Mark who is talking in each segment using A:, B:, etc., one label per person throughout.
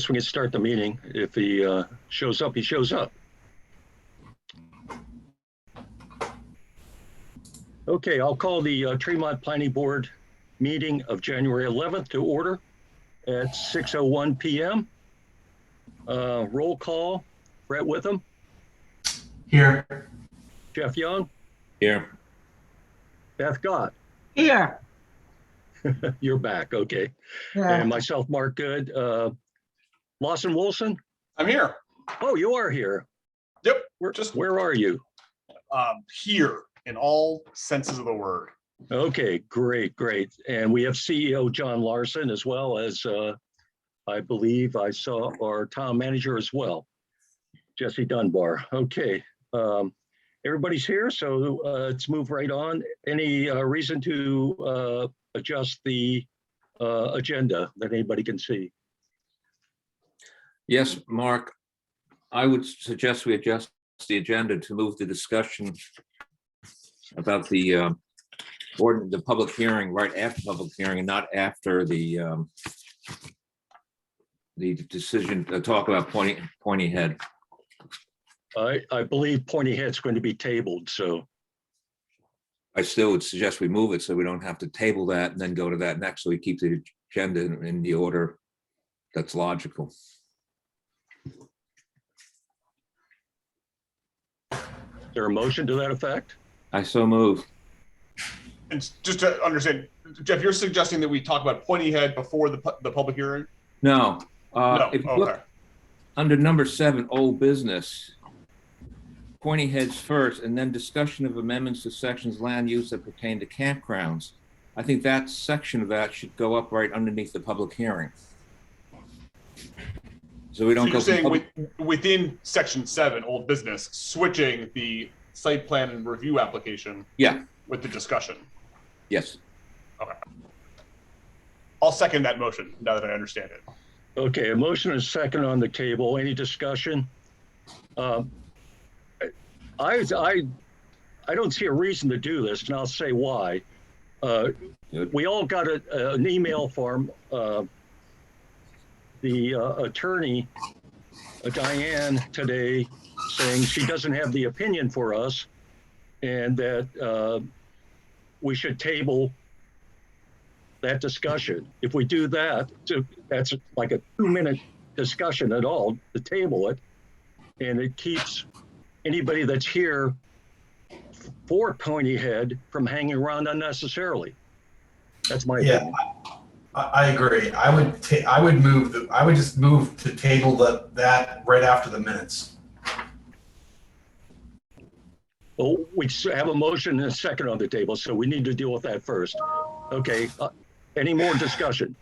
A: guess we can start the meeting. If he uh, shows up, he shows up. Okay, I'll call the uh, Tremont Planning Board meeting of January 11th to order at 6:01 PM. Uh, Roll call, Brett Witham,
B: Here.
A: Jeff Young,
C: Here.
A: Beth Gott.
B: Here.
A: You're back, okay. And myself, Mark Good. Uh, Lawson Wilson,
D: I'm here,
A: oh, you are here.
D: Yep,
A: Where-
D: just-
A: Where are you?
D: um, here in all senses of the word.
A: Okay, great, great. And we have CEO John Larson as well as, uh, I believe I saw our town manager as well, Jesse Dunbar. Okay. um, Everybody's here, so uh, let's move right on. Any uh, reason to uh, adjust the uh, agenda that anybody can see?
C: Yes, Mark, I would suggest we adjust the agenda to move the discussion about the uh, ordin the public hearing, right after public hearing and not after the um, the decision, to talk about pointy, pointy head.
A: I, I believe Pointy Head's going to be tabled, so,
C: I still would suggest we move it so we don't have to table that and then go to that next. So we keep the agenda in in the order that's logical.
A: is there a motion to that effect?
C: I so move.
D: And just to understand, Jeff, you're suggesting that we talk about Pointy Head before the, pu- the public hearing?
C: No. uh,
D: No,
C: if you look-
D: okay.
C: Under number seven, old business. Pointy heads first, and then discussion of amendments to sections of land use that pertain to campgrounds. I think that section of that should go up right underneath the public hearing. So
D: So
C: we don't go.
D: you're
C: from
D: saying with,
C: public-
D: within section seven, old business, switching the site plan and review application
C: Yeah,
D: with the discussion.
C: yes.
D: I'll second that motion now that I understand it.
A: Okay, a motion and a second on the table. Any discussion? Um, I, I, I don't see a reason to do this, and I'll say why. Uh, We all got a, an email from uh, the uh, attorney, uh, Diane, today, saying she doesn't have the opinion for us, and that uh, we should table that discussion. If we do that, to- that's like a two-minute discussion at all to table it. And it keeps anybody that's here for Pony Head from hanging around unnecessarily. That's my
B: Yeah.
A: opinion.
B: I, I agree. I would ta- I would move, the- I would just move to table that, that right after the minutes.
A: Well, we s- have a motion and a second on the table, so we need to deal with that first. Okay, uh, any more discussion?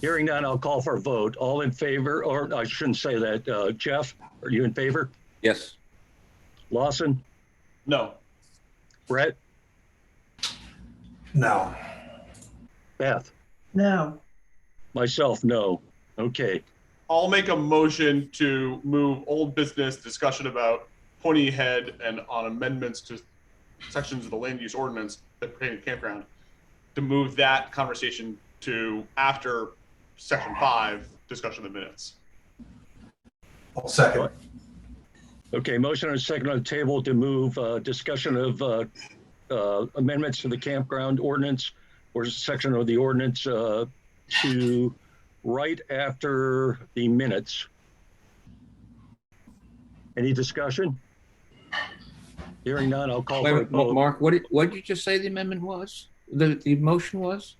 A: Hearing none, I'll call for a vote. All in favor, or I shouldn't say that. Uh, Jeff, are you in favor?
C: Yes,
A: Lawson,
D: No,
A: Brett,
B: No.
A: Beth?
E: No,
A: Myself, no. Okay,
D: I'll make a motion to move old business discussion about Pointy Head and on amendments to sections of the land use ordinance that pertain to campground, to move that conversation to after section five, discussion of the minutes.
B: I'll second.
A: okay, motion and a second on the table to move uh, discussion of uh, uh, amendments to the campground ordinance or section of the ordinance uh, to right after the minutes. Any discussion? Hearing none, I'll
D: Oh,
A: call for a
C: Wait, Ma-
A: vote.
C: Mark, what did, what did you just say the amendment was? The, the motion was?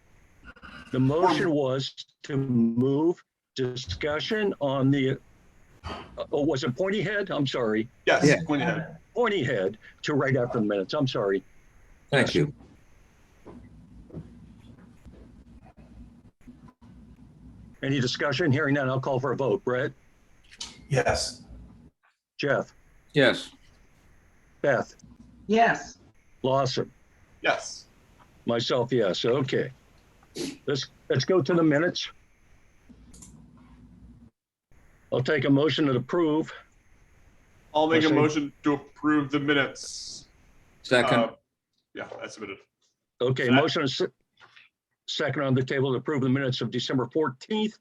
A: The motion was to move discussion on the, oh, was it Pointy Head? I'm sorry.
D: Yes,
C: Yeah.
D: Pointy Head.
A: Pointy Head to right after the minutes. I'm sorry.
C: Thank you.
A: Any discussion? Hearing none, I'll call for a vote. Brett,
B: Yes.
A: Jeff,
C: Yes,
A: Beth,
E: yes,
A: Lawson,
D: Yes.
A: myself, yes. Okay. Let's, let's go to the minutes. I'll take a motion to approve.
D: I'll make a
A: Motion.
D: motion to approve the minutes.
C: second,
D: Uh, Yeah, I submitted.
A: Okay, motion is se- second on the table to approve the minutes of December 14th,